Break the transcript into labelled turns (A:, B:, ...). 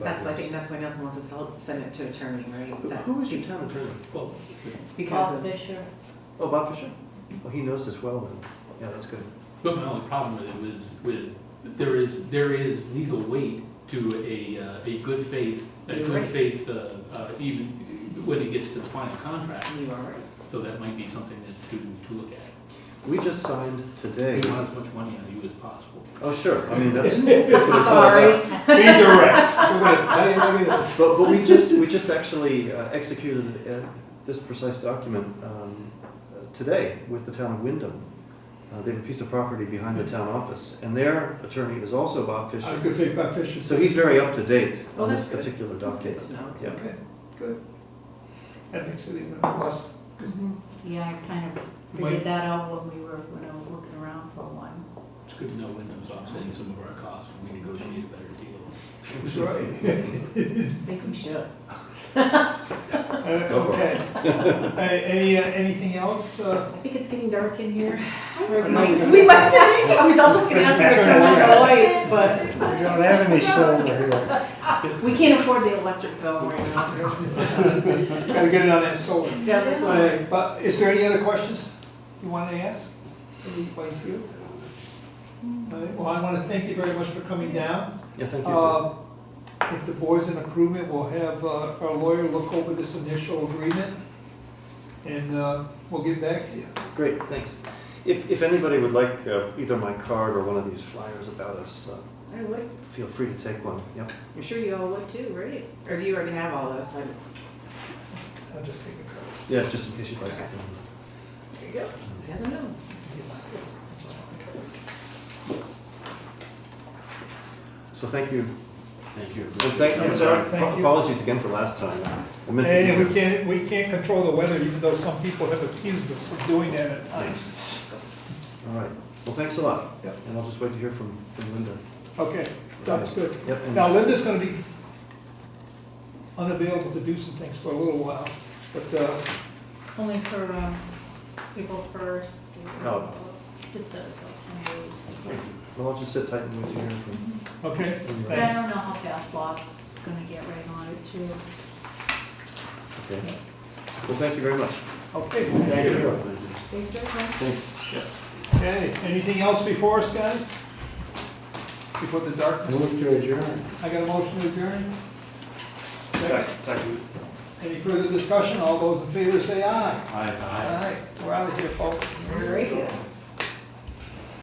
A: That's why I think that's why Nelson wants to sell, send it to attorney, right? Is
B: Who-
A: that-
B: Who was your town attorney?
C: Well,
A: Because
D: Paul
A: of,
D: Fisher,
B: Oh, Bob Fisher? Oh, he knows this well then. Yeah, that's good.
C: but my only problem with it was with, there is, there is legal weight to a, uh, a good faith, a
A: You're
C: good
A: right.
C: faith, uh, uh, even when it gets to the final contract,
A: you are right.
C: so that might be something that to, to look at.
B: We just signed today.
C: We want as much money out of you as possible.
B: Oh, sure. I mean, that's, that's what it's all about.
E: Be direct. We're gonna tell you like it is.
B: But, but we just, we just actually uh, executed uh, this precise document um, uh, today with the town of Wyndham. Uh, They have a piece of property behind the town office, and their attorney is also Bob
E: I was
B: Fisher.
E: gonna say about Fisher.
B: So he's very up to date
A: Well,
B: on this
A: that's good.
B: particular
A: That's good
B: document.
A: to know.
B: Yeah.
E: Okay, good. That makes it even less, because
F: Mm-hmm.
D: yeah, I kind of
E: Wait.
D: figured that out when we were, when I was looking around for one.
C: It's good to know when those offsetting some of our costs, when we negotiate a better deal.
E: it's right.
A: I think we should.
E: Uh,
B: Go for
E: Okay. Uh, Any, uh, anything else? Uh,
A: I think it's getting dark in here.
E: We're
A: Like,
E: not gonna-
A: We might, I was almost gonna ask for a turn on the lights,
F: We
A: but
F: don't have any silver here.
A: Ah, we can't afford the electric bill right now, so.
E: Gotta get it on that solar.
A: Yeah, this one.
E: Uh, But is there any other questions you wanted to ask? Anybody see you? All right, Well, I want to thank you very much for coming down.
B: Yeah, thank you. too.
E: Uh, If the board's in agreement, we'll have uh, our lawyer look over this initial agreement, and uh, we'll get back to you.
B: Great, thanks. If, if anybody would like uh, either my card or one of these flyers about us, uh,
A: I would,
B: feel free to take one. Yep.
A: I'm sure you all would too, right? Or do you already have all those? Like,
E: I'll just take a
B: Yeah, just in case you'd like something.
A: There you go. He doesn't know.
B: So thank you. Thank you. And
E: Thank
B: thank,
E: you.
B: and sorry,
E: Thank you.
B: apologies again for last time. I meant to
E: couple.
B: be
E: And
B: here.
E: we can't, we can't control the weather, even though some people have accused us of doing that at times.
B: All right, well, thanks a lot.
E: Yep.
B: And I'll just wait to hear from, from Linda.
E: Okay, sounds good.
B: Yep, and-
E: Now Linda's gonna be unavailable to do some things for a little while, but uh,
D: Only for, um, April first.
B: Oh.
D: Just a, like, ten days.
B: Well, I'll just sit tight and wait to hear from.
E: Okay,
B: from you.
D: But I
E: thanks.
D: don't know how fast Bob's gonna get right on it too.
B: Okay. Well, thank you very much.
E: Okay,
B: Thank you.
A: Safe trip, huh?
B: Thanks.
E: okay, anything else before us, guys? Before the darkness?
F: Move to adjourn.
E: I got a motion to adjourn?
B: Second.
E: Any further discussion? All those in favor say aye.
B: Aye.
E: Aye. We're out of here, folks.
A: Great.